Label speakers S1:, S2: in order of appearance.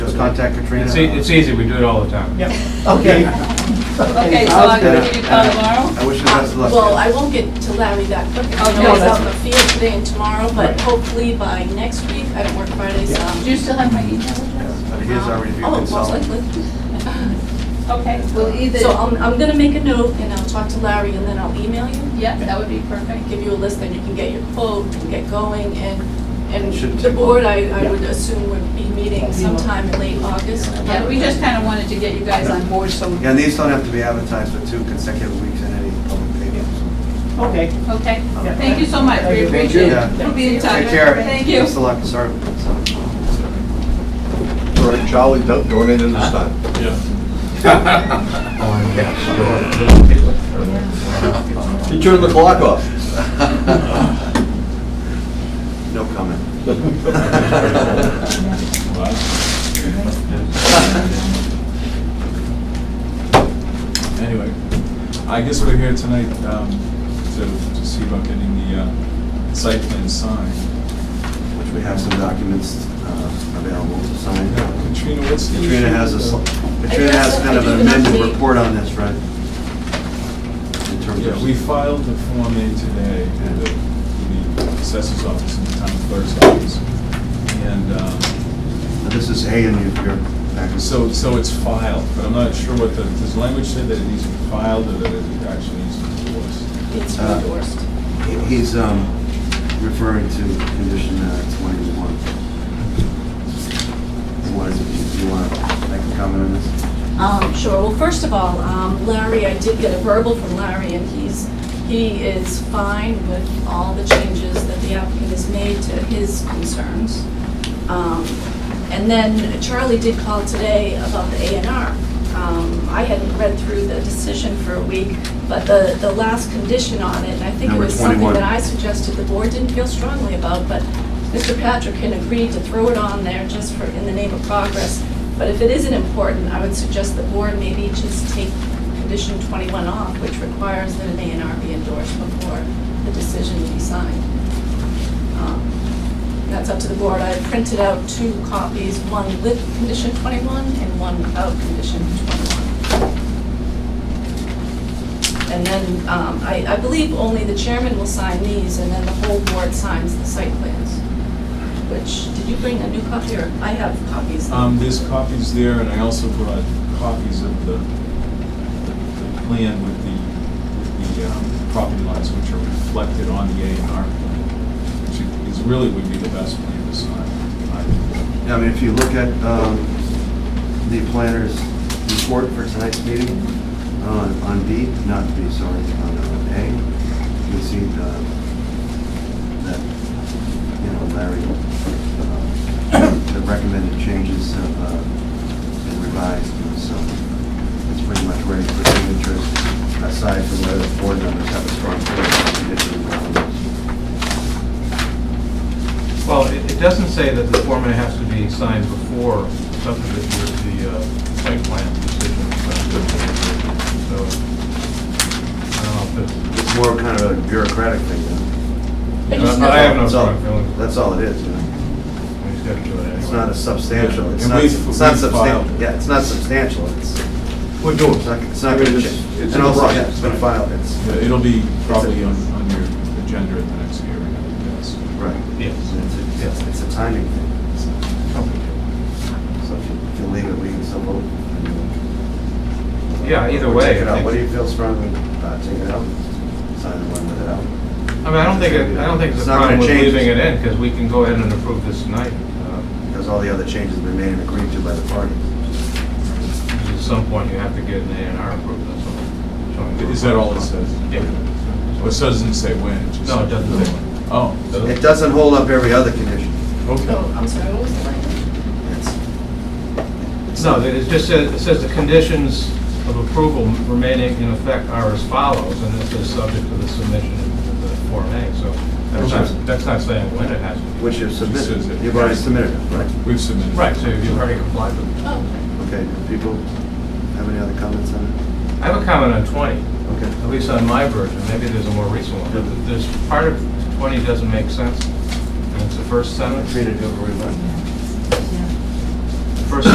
S1: contact Katrina.
S2: It's, e- it's easy, we do it all the time.
S3: Yep.
S1: Okay.
S4: Okay, so I'm gonna give you a call tomorrow?
S1: I wish you best of luck.
S5: Well, I won't get to Larry that quick. I
S4: Okay.
S5: know he's out in the field today and tomorrow, but
S3: Right.
S5: hopefully by next week, I don't work Fridays. um,
S4: Do you still have my email address?
S1: But he is our review
S5: Oh, most
S1: consultant.
S5: likely.
S4: Okay, well, either,
S5: So I'm, I'm gonna make a note and I'll talk to Larry and then I'll email you,
S4: yeah, that would be perfect.
S5: give you a list, then you can get your quote and get going and, and
S1: Shouldn't
S5: the
S1: take
S5: board, I, I would assume would be meeting sometime in late August.
S4: Yeah, we just kind of wanted to get you guys on board, so,
S1: Yeah, and these don't have to be advertised for two consecutive weeks in any public paper.
S3: Okay.
S4: okay.
S3: Yeah.
S4: Thank you so much, we
S3: Thank
S1: you.
S4: appreciate it.
S1: Yeah.
S4: We'll be in touch.
S1: Take care.
S4: Thank you.
S1: Best of luck, sorry.
S6: All right, Charlie, don't donate in the sun.
S2: Oh,
S6: You turned the clock off.
S1: No comment.
S7: Anyway, I guess we're here tonight um, to to see about getting the uh, site plan signed.
S1: Which we have some documents uh, available to sign.
S7: Now, Katrina, what's the issue?
S1: Katrina has a, sl- Katrina has kind of an amended report on this, right? In terms
S7: Yeah, we
S1: of,
S7: filed the Form A today with the- with the assessor's office and the town clerk's office. And um,
S1: this is A in your, your packet.
S7: so, so it's filed, but I'm not sure what the, does language say that it needs to be filed or that it actually needs to be endorsed?
S5: It's
S1: Uh,
S5: endorsed.
S1: He- He's um, referring to condition uh, 21. He wanted to be- you want to make a comment on this?
S5: Um, Sure, well, first of all, um, Larry, I did get a verbal from Larry, and he's, he is fine with all the changes that the applicant has made to his concerns. Um, And then Charlie did call today about the A and R. Um, I hadn't read through the decision for a week, but the, the last condition on it, and I think it
S1: Number
S5: was something
S1: 21.
S5: that I suggested the board didn't feel strongly about, but Mr. Patrick had agreed to throw it on there just for, in the name of progress. But if it isn't important, I would suggest the board maybe just take condition 21 off, which requires that an A and R be endorsed before the decision be signed. Um, That's up to the board. I printed out two copies, one with condition 21 and one without condition 21. And then, um, I I believe only the chairman will sign these, and then the whole board signs the site plans, which, did you bring a new copy, or I have copies?
S7: Um, there's copies there, and I also brought copies of the, the plan with the, with the, um, property lines which are reflected on the A and R plan, which is really would be the best plan to sign. I-
S1: Yeah, I mean, if you look at um, the planner's report for tonight's meeting, uh, on B, not B, sorry, on uh, A, you can see the, that, you know, Larry, uh, the recommended changes have uh, been revised, and so it's pretty much ready for signatures, aside from whether the board members have a strong condition around this.
S2: Well, it, it doesn't say that the Form A has to be signed before subdivision, the, uh, site plan decision. So, I don't know if it's,
S1: It's more kind of a bureaucratic thing, you
S5: I
S2: No,
S5: just
S2: no,
S5: know-
S2: uh, I have
S1: know.
S2: no
S1: That's all-
S2: strong feeling.
S1: That's all it is, you know?
S2: we just gotta do it anyway.
S1: It's not a substantial, it's
S7: And
S1: not,
S7: we've-
S1: it's not
S7: we've filed.
S1: substantial, yeah, it's not substantial, it's,
S7: We're doing
S1: it's not, it's not gonna change. And
S7: It's in the
S1: also, yeah,
S7: process.
S1: it's been filed, it's,
S7: It'll be probably on, on your agenda at the next hearing, I would guess.
S1: right. It's,
S2: Yes.
S1: a- it's, it's a timing thing, so, so if you- if you leave it, we can still vote.
S2: Yeah, either way,
S1: Take it
S2: I
S1: out,
S2: think-
S1: what do you feel strongly about, uh, take it out, sign the one with it out?
S2: I mean, I don't think, it- I don't think
S1: It's
S2: it's a
S1: not gonna
S2: problem with
S1: change.
S2: leaving it in, because we can go ahead and approve this tonight. Uh,
S1: Because all the other changes have been made and agreed to by the parties.
S2: At some point, you have to get an A and R approved, that's all. So-
S7: Is that all it says?
S2: Yeah.
S7: Well, it doesn't say when. just-
S2: No, it doesn't say when.
S7: Oh.
S1: It doesn't hold up every other condition,
S5: Oh, I'm sorry, what was the language?
S1: it's,
S2: No, it just says, it says the conditions of approval remaining in effect are as follows, and this is subject to the submission of the Form A, so that's not, that's not saying when it has to be.
S1: which you've submitted,
S7: says it.
S1: you've already submitted it, right?
S7: We've submitted.
S2: Right, so you've already complied with it.
S5: Oh,
S1: Okay, do people have any other comments on it?
S2: I have a comment on 20,
S1: Okay.
S2: at least on my version, maybe there's a more recent one, but there's, part of 20 doesn't make sense, and it's the first sentence.
S1: Katrina, do you have a remark?